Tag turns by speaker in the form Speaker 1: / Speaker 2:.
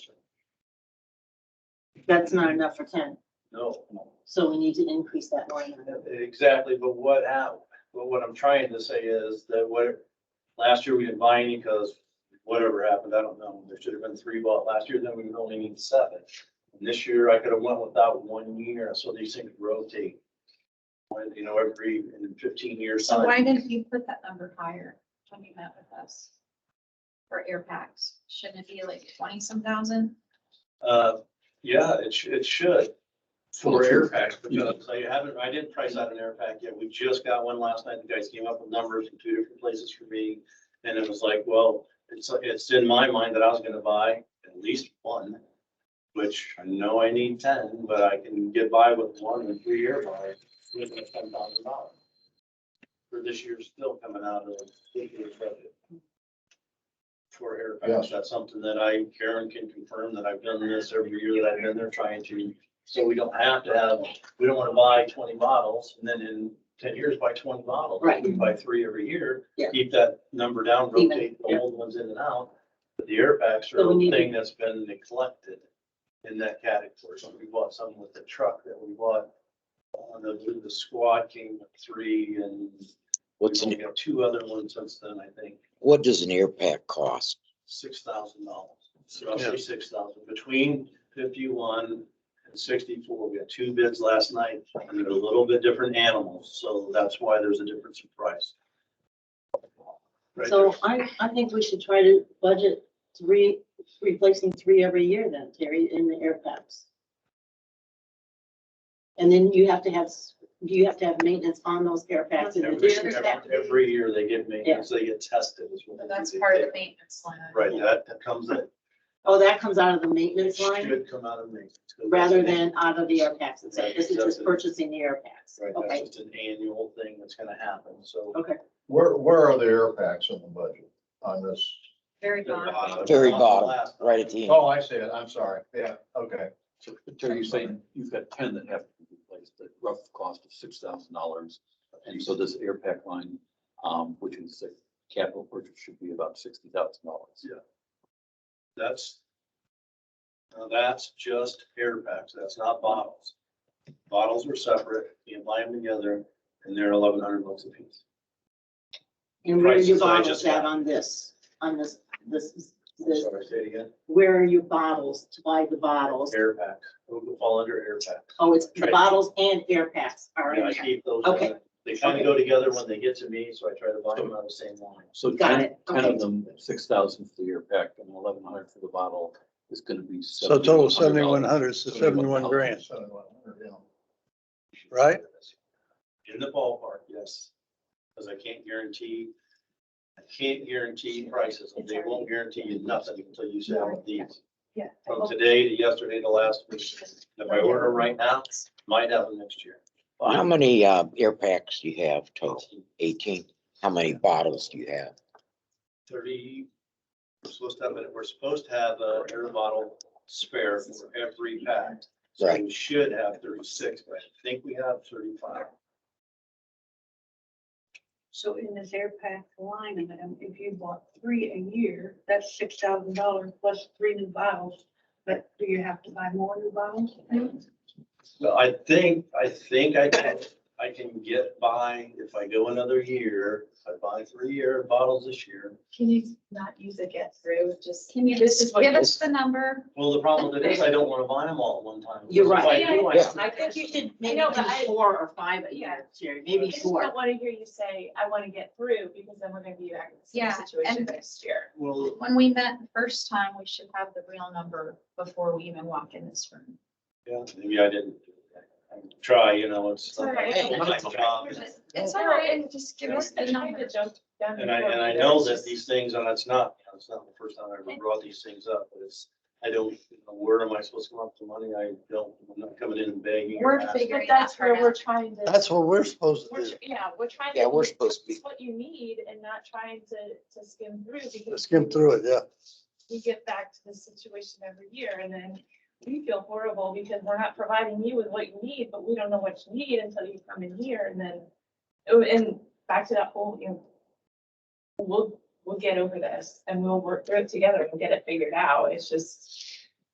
Speaker 1: That's not enough for ten,
Speaker 2: No,
Speaker 1: so we need to increase that line item.
Speaker 2: exactly, but what, hap- but what I'm trying to say is that what, last year we didn't buy any because whatever happened, I don't know, there should have been three bought last year, then we would only need seven. And This year I could have went without one year, so these things rotate. When, You know, every fifteen years.
Speaker 3: So why didn't you put that number higher when you met with us? For air packs, shouldn't it be like twenty some thousand?
Speaker 2: Uh, yeah, it should, it should. For
Speaker 4: Well,
Speaker 2: air packs,
Speaker 4: yeah.
Speaker 2: because I haven't, I didn't price out an air pack yet. We just got one last night. The guys came up with numbers from two different places for me. And it was like, well, it's, it's in my mind that I was gonna buy at least one, which I know I need ten, but I can get by with one and three air bars within ten thousand dollars. For this year still coming out of this year's budget. For air packs, that's something that I, Karen can confirm that I've done this every year that I've been there trying to. So we don't have to have, we don't wanna buy twenty bottles and then in ten years buy twenty bottles.
Speaker 1: Right.
Speaker 2: We buy three every year.
Speaker 1: Yeah.
Speaker 2: Keep that number down,
Speaker 1: Even,
Speaker 2: rotate the
Speaker 1: yeah.
Speaker 2: old ones in and out. But the air packs
Speaker 1: So
Speaker 2: are
Speaker 1: we
Speaker 2: a
Speaker 1: need to-
Speaker 2: thing that's been neglected in that category. So we bought some with the truck that we bought. uh, the, the squad came with three and we've
Speaker 5: What's,
Speaker 2: only
Speaker 5: an-
Speaker 2: got two other ones since then, I think,
Speaker 5: what does an air pack cost?
Speaker 2: six thousand dollars. Roughly six thousand, between fifty-one and sixty-four. We had two bids last night and they're a little bit different animals, so that's why there's a difference in price. Right
Speaker 1: So I, I think we should try to budget three, replacing three every year then, Terry, in the air packs. And then you have to have, s- you have to have maintenance on those air packs in
Speaker 2: Every-
Speaker 1: addition.
Speaker 2: Every every year they get maintenance, they get tested. is what
Speaker 3: But
Speaker 2: they
Speaker 3: that's
Speaker 2: do.
Speaker 3: part of the maintenance line. item.
Speaker 2: Right, that, that comes in.
Speaker 1: Oh, that comes out of the
Speaker 2: It
Speaker 1: maintenance line
Speaker 2: should come out of maintenance. 'cause
Speaker 1: rather
Speaker 2: that's an-
Speaker 1: than out of the air packs itself. This is just
Speaker 2: Right.
Speaker 1: purchasing the air packs.
Speaker 2: Right, that's
Speaker 1: Okay,
Speaker 2: just an annual thing that's gonna happen, so.
Speaker 1: okay.
Speaker 4: Where, where are the air packs in the budget on this?
Speaker 3: Very bottom.
Speaker 5: Very
Speaker 2: Not the
Speaker 5: bottom,
Speaker 2: last.
Speaker 5: right at the end.
Speaker 4: Oh, I see it. I'm sorry. Yeah, okay.
Speaker 6: So Terry, you're saying you've got ten that have to be replaced, the rough cost of six thousand dollars. And so this air pack line, um, which is a capital purchase, should be about sixty thousand dollars.
Speaker 2: That's, now that's just air packs, that's not bottles. Bottles are separate, you buy them together, and they're eleven hundred bucks a piece.
Speaker 1: And where are your
Speaker 2: Prices I
Speaker 1: bottles
Speaker 2: just
Speaker 1: at
Speaker 2: got.
Speaker 1: on this, on this, this, this,
Speaker 2: Sorry, say it again,
Speaker 1: where are your bottles to buy the bottles?
Speaker 2: air pack, it would fall under air pack.
Speaker 1: Oh, it's the
Speaker 2: Right.
Speaker 1: bottles and air packs are
Speaker 2: And I
Speaker 1: in there.
Speaker 2: keep those,
Speaker 1: Okay.
Speaker 2: uh, they kind of go together when they get to me, so I try to buy them on the same line.
Speaker 6: So
Speaker 1: Got
Speaker 6: ten,
Speaker 1: it.
Speaker 6: ten
Speaker 1: Okay.
Speaker 6: of them, six thousand for the air pack and eleven hundred for the bottle is gonna be.
Speaker 7: So total
Speaker 6: $7,100.
Speaker 7: seventy-one hundred, so seventy-one
Speaker 6: $71,000.
Speaker 7: grand,
Speaker 4: Seven, one hundred, yeah.
Speaker 7: right?
Speaker 2: In the ballpark, yes, because I can't guarantee, I can't guarantee prices, and they won't guarantee you nothing until you sell them these.
Speaker 3: Yeah.
Speaker 2: From today to yesterday to last week, if I order them right now, might have them next year.
Speaker 5: How many, uh, air packs do you have total? Eighteen? How many bottles do you have?
Speaker 2: Thirty, we're supposed to have, it- we're supposed to have a air bottle spare for every pack. So we should have thirty-six, but I think we have thirty-five.
Speaker 8: So in this air pack line item, if you bought three a year, that's six thousand dollars plus three new bottles. But do you have to buy more new bottles?
Speaker 2: So I think, I think I can, I can get by, if I go another year, if I buy three-year bottles this year.
Speaker 3: Can you not use a get through, just? Can you
Speaker 8: this is
Speaker 3: just
Speaker 8: what
Speaker 3: give
Speaker 8: it
Speaker 3: us the number?
Speaker 2: Well, the problem with it is I don't wanna buy them all at one time.
Speaker 1: You're right.
Speaker 2: If I do, I-
Speaker 5: Yeah.
Speaker 1: I think you should maybe
Speaker 3: know,
Speaker 1: do
Speaker 3: but I-
Speaker 1: four or five a
Speaker 9: Yeah.
Speaker 1: year, Jerry, maybe
Speaker 9: I just don't
Speaker 1: four.
Speaker 9: want to hear you say, I want to get through, because then we're going to be back in the
Speaker 3: Yeah,
Speaker 9: same situation
Speaker 3: and-
Speaker 9: next year.
Speaker 2: Well,
Speaker 3: When we met the first time, we should have the real number before we even walk in this room.
Speaker 2: yeah, maybe I didn't try, you know, it's.
Speaker 9: It's all right.
Speaker 2: my job.
Speaker 3: It's all right, and just give us the
Speaker 9: Trying
Speaker 3: number.
Speaker 9: to jump down
Speaker 2: And I,
Speaker 9: before
Speaker 2: and I
Speaker 9: we
Speaker 2: know
Speaker 9: do,
Speaker 2: that
Speaker 9: it's
Speaker 2: these
Speaker 9: just-
Speaker 2: things, and it's not, you know, it's not the first time I ever brought these things up, but it's, I don't, you know, where am I supposed to come up with the money? I don't, I'm not coming in and begging. or
Speaker 3: We're
Speaker 2: asking.
Speaker 3: figuring
Speaker 9: But that's where we're trying to.
Speaker 7: That's what we're supposed to
Speaker 9: we're
Speaker 7: do,
Speaker 9: tr- Yeah, we're trying.
Speaker 5: Yeah, we're supposed to be-
Speaker 9: It's what you need and not trying to, to skim through
Speaker 7: to
Speaker 9: because
Speaker 7: skim through it, yeah.
Speaker 9: we get back to this situation every year and then we feel horrible because we're not providing you with what you need, but we don't know what you need until you come in here and then, oh, and back to that whole, you know, we'll, we'll get over this and we'll work through it together and get it figured out. It's just